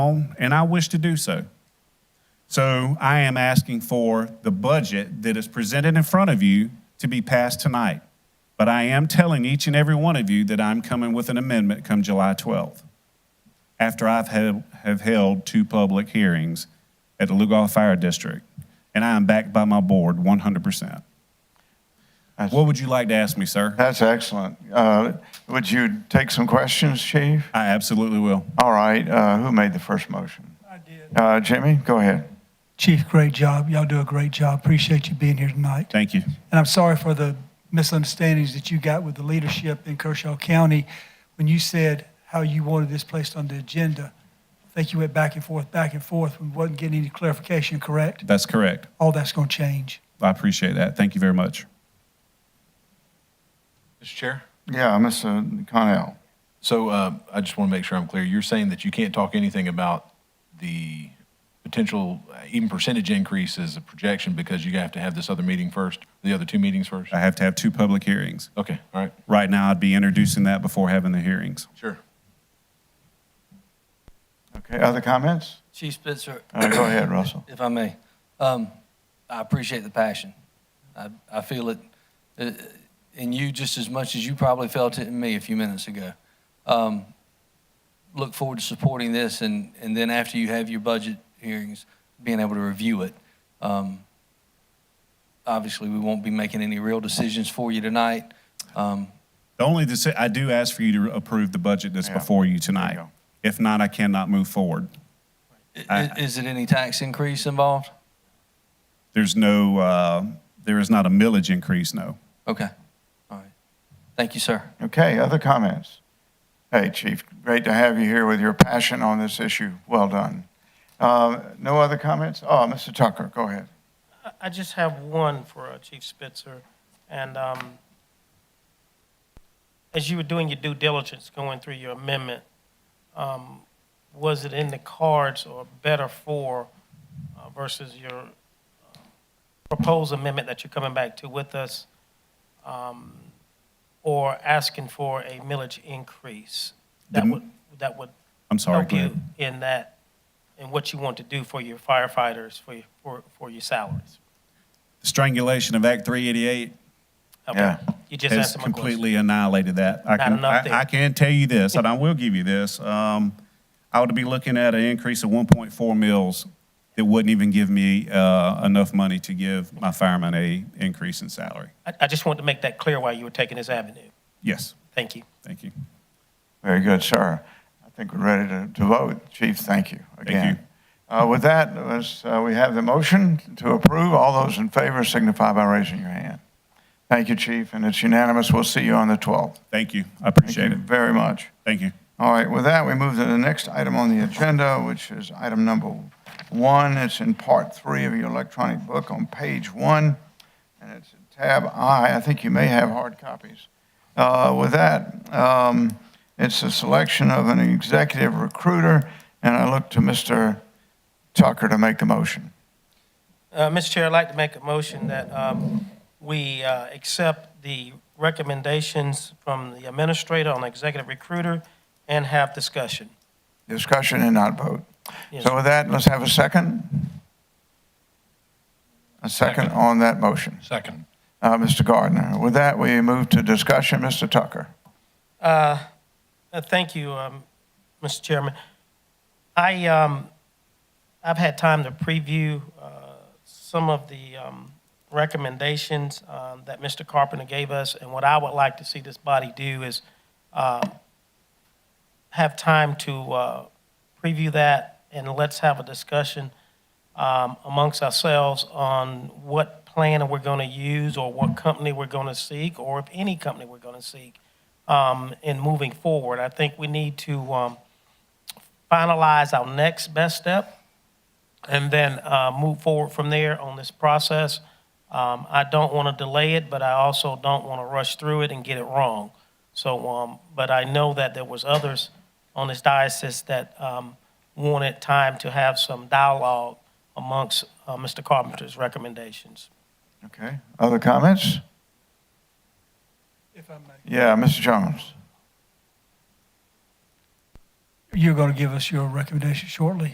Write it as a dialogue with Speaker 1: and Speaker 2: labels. Speaker 1: on, and I wish to do so. So I am asking for the budget that is presented in front of you to be passed tonight. But I am telling each and every one of you that I'm coming with an amendment come July 12th, after I've held, have held two public hearings at the Lugol Fire District, and I am backed by my board 100%.
Speaker 2: That's-
Speaker 1: What would you like to ask me, sir?
Speaker 2: That's excellent. Uh, Would you take some questions, Chief?
Speaker 1: I absolutely will.
Speaker 2: All right, uh, who made the first motion?
Speaker 3: I did.
Speaker 2: Uh, Jimmy, go ahead.
Speaker 3: Chief, great job. Y'all do a great job. Appreciate you being here tonight.
Speaker 1: Thank you.
Speaker 3: And I'm sorry for the misunderstandings that you got with the leadership in Kershaw County when you said how you wanted this placed on the agenda. I think you went back and forth, back and forth, and wasn't getting any clarification, correct?
Speaker 1: That's correct.
Speaker 3: All that's going to change.
Speaker 1: I appreciate that. Thank you very much.
Speaker 4: Mr. Chair?
Speaker 2: Yeah, Mr. Connell.
Speaker 4: So uh, I just want to make sure I'm clear. You're saying that you can't talk anything about the potential, uh, even percentage increase as a projection because you have to have this other meeting first, the other two meetings first?
Speaker 1: I have to have two public hearings.
Speaker 4: Okay, all right,
Speaker 1: Right now, I'd be introducing that before having the hearings.
Speaker 4: sure.
Speaker 2: Okay, other comments?
Speaker 5: Chief Spitzer,
Speaker 2: Uh, Go ahead, Russell.
Speaker 5: if I may, um, I appreciate the passion. I, I feel it uh, in you just as much as you probably felt it in me a few minutes ago. Um, look forward to supporting this, and, and then after you have your budget hearings, being able to review it. Um, obviously, we won't be making any real decisions for you tonight. Um,
Speaker 1: The only, deci- I do ask for you to approve the budget that's
Speaker 2: Yeah.
Speaker 1: before you
Speaker 2: you
Speaker 1: tonight.
Speaker 2: go.
Speaker 1: If not, I cannot move forward.
Speaker 5: i-
Speaker 1: I-
Speaker 5: is it any tax increase involved?
Speaker 1: There's no, uh, there is not a millage increase, no.
Speaker 5: Okay. All right. Thank you, sir.
Speaker 2: Okay, other comments? Hey, Chief, great to have you here with your passion on this issue. Well done. Uh, No other comments? Oh, Mr. Tucker, go ahead.
Speaker 6: I- I just have one for uh, Chief Spitzer, and um, as you were doing your due diligence, going through your amendment, um, was it in the cards or better for uh, versus your uh, proposed amendment that you're coming back to with us, um, or asking for a millage increase? That
Speaker 1: The-
Speaker 6: would, that would
Speaker 1: I'm sorry,
Speaker 6: help you
Speaker 1: Glenn.
Speaker 6: in that, in what you want to do for your firefighters, for your, for, for your salaries?
Speaker 1: Strangulation of Act 388
Speaker 6: Okay,
Speaker 2: Yeah.
Speaker 6: You just
Speaker 1: has
Speaker 6: answered my question.
Speaker 1: completely annihilated that. I
Speaker 6: Not
Speaker 1: can,
Speaker 6: enough
Speaker 1: I,
Speaker 6: there.
Speaker 1: I can tell you this, and I will give you this. Um, I would be looking at an increase of 1.4 mils that wouldn't even give me, uh, enough money to give my firemen a increase in salary.
Speaker 6: I, I just wanted to make that clear why you were taking this avenue.
Speaker 1: Yes,
Speaker 6: Thank you.
Speaker 1: thank you.
Speaker 2: Very good, sir. I think we're ready to to vote. Chief, thank you again. Uh, With that, let's, uh, we have the motion to approve. All those in favor signify by raising your hand. Thank you, Chief, and it's unanimous. We'll see you on the 12th.
Speaker 1: Thank you. I
Speaker 2: Thank
Speaker 1: appreciate
Speaker 2: you
Speaker 1: it.
Speaker 2: very much.
Speaker 1: Thank you.
Speaker 2: All right, with that, we move to the next item on the agenda, which is item number one. It's in part three of your electronic book on page one, and it's in tab I. I think you may have hard copies. Uh, With that, um, it's a selection of an executive recruiter, and I look to Mr. Tucker to make the motion.
Speaker 6: Uh, Mr. Chair, I'd like to make a motion that, um, we, uh, accept the recommendations from the administrator on executive recruiter and have discussion.
Speaker 2: Discussion and not vote.
Speaker 6: Yes.
Speaker 2: So with that, let's have a second. A second on that motion.
Speaker 4: Second.
Speaker 2: Uh, Mr. Gardner. With that, we move to discussion. Mr. Tucker.
Speaker 6: Uh, uh, Thank you, um, Mr. Chairman. I, um, I've had time to preview uh, some of the um, recommendations um, that Mr. Carpenter gave us, and what I would like to see this body do is um, have time to uh, preview that, and let's have a discussion um, amongst ourselves on what plan we're going to use, or what company we're going to seek, or if any company we're going to seek um, in moving forward. I think we need to um, finalize our next best step and then uh, move forward from there on this process. Um, I don't want to delay it, but I also don't want to rush through it and get it wrong. So, um, but I know that there was others on this diocese that um, wanted time to have some dialogue amongst uh, Mr. Carpenter's recommendations.
Speaker 2: Okay. Other comments?
Speaker 3: If I may.
Speaker 2: Yeah, Mr. Jones.
Speaker 3: you're going to give us your recommendation shortly.